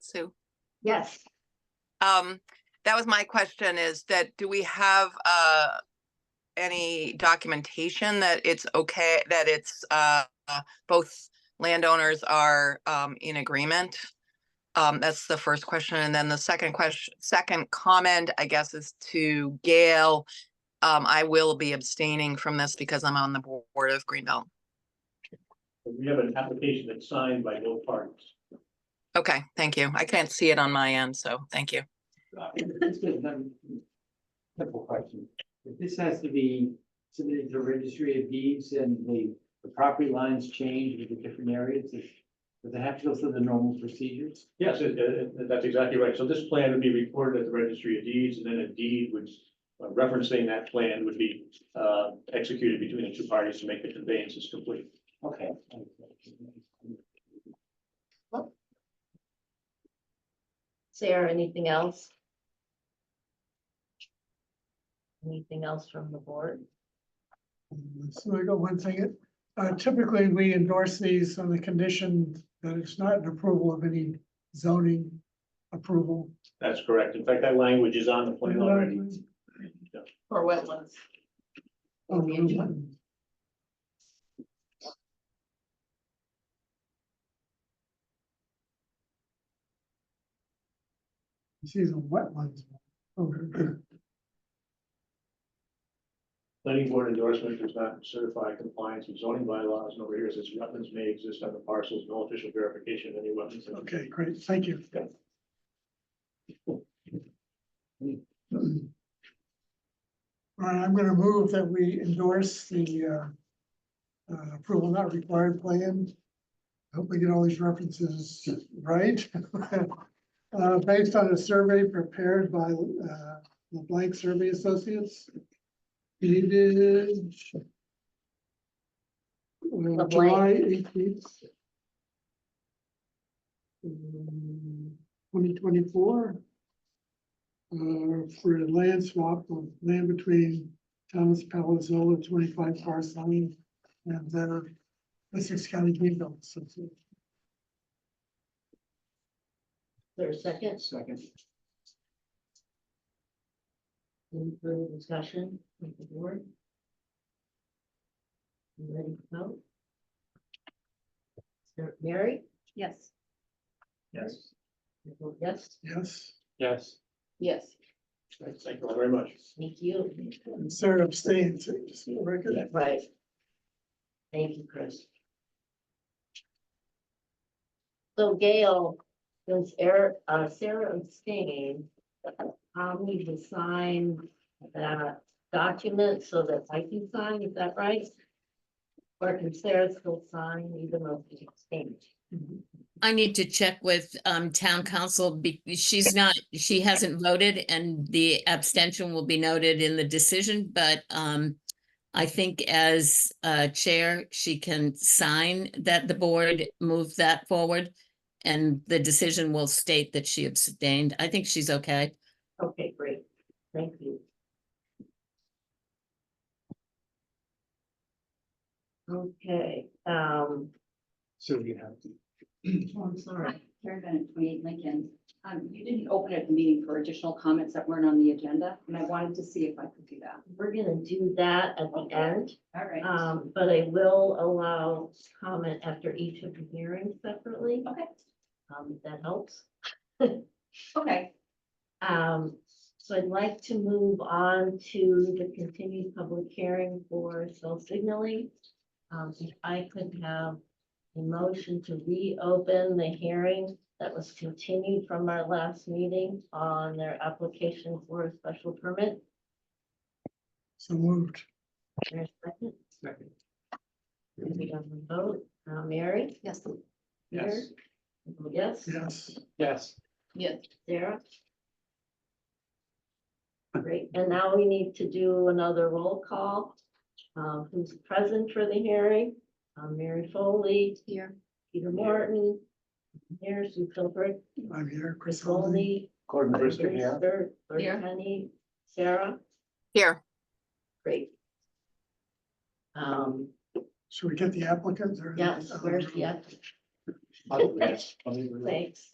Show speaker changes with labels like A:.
A: Sue?
B: Yes,
A: Um, that was my question is that do we have, uh, any documentation that it's okay, that it's, uh, uh, both landowners are, um, in agreement? Um, that's the first question. And then the second question, second comment, I guess, is to Gail. Um, I will be abstaining from this because I'm on the board of Greenbelt.
C: We have an application that's signed by both parties.
A: Okay, thank you. I can't see it on my end, so thank you.
D: This is another Simple question. If this has to be submitted to registry of deeds and the, the property lines change with the different areas, does does it have to go through the normal procedures?
C: Yes, it- it- it- that's exactly right. So this plan would be recorded at the registry of deeds and then a deed which uh, referencing that plan would be uh, executed between the two parties to make the conveyances complete.
D: Okay.
B: Sarah, anything else? Anything else from the board?
E: So I got one thing, uh, typically we endorse these on the condition that it's not an approval of any zoning approval.
C: That's correct. In fact, that language is on the plan already.
B: For wetlands.
E: Um, See the wetlands. Okay.
C: Planning board endorsement does not certify compliance with zoning bylaws and over here says wetlands may exist on the parcels, no official verification of any wetlands.
E: Okay, great, thank you. All right, I'm gonna move that we endorse the uh, uh, approval not required plan. Hope we get all these references right. Uh, Based on a survey prepared by uh, LeBlanc Survey Associates. Dated uh, July eighteenth, Uh, twenty twenty-four. Uh, for a land swap of land between Thomas Palazzolo, twenty-five Forest Lane, and then Essex County Greenbelt Association.
B: There's second,
D: Second.
B: any further discussion with the board? You Ready to vote? Sarah- Mary? Yes.
C: Yes.
B: Yes,
E: Yes,
C: Yes.
B: yes,
C: Thank you all very much.
B: thank you.
E: and Sarah abstains, just for the record.
B: Right. Thank you, Chris. So Gail, since Eric, uh, Sarah abstained, I'll need to sign that document so that I can sign, is that right? Or can Sarah still sign even though she abstained?
F: I need to check with um town council because she's not, she hasn't voted and the abstention will be noted in the decision, but um. I think as uh chair, she can sign that the board moved that forward. And the decision will state that she abstained. I think she's okay.
B: Okay, great, thank you. Okay, um,
D: So you have to.
B: oh, I'm sorry.
G: Hi, Karen Bennett, twenty-eight Lincoln. Um, you didn't open up the meeting for additional comments that weren't on the agenda, and I wanted to see if I could do that.
B: We're gonna do that at the end,
G: All right.
B: um, but I will allow comment after each of the hearings separately,
G: Okay,
B: um, if that helps.
G: okay.
B: Um, so I'd like to move on to the continued public hearing for cell signaling. Um, if I could have a motion to reopen the hearing that was continued from our last meeting on their application for a special permit.
E: So moved.
B: Is there a second?
D: Second.
B: If we don't vote, uh, Mary?
G: Yes.
D: Yes.
B: Mary? Yes,
E: Yes,
D: Yes.
G: Yes.
B: Sarah? Great, and now we need to do another roll call. Um, who's present for the hearing? Um, Mary Foley,
G: Here.
B: Peter Morton, here, Sue Filbert,
E: I'm here,
B: Chris
E: Chris Holden.
B: Foley,
D: Gordon Brister here.
B: Brewster,
G: Here.
B: Penny, Sarah,
A: Here,
B: great. Um,
E: Should we get the applicant or?
B: yes, where's the,
E: applicant?
B: app-
D: I'll do this. I'll do this.
B: thanks.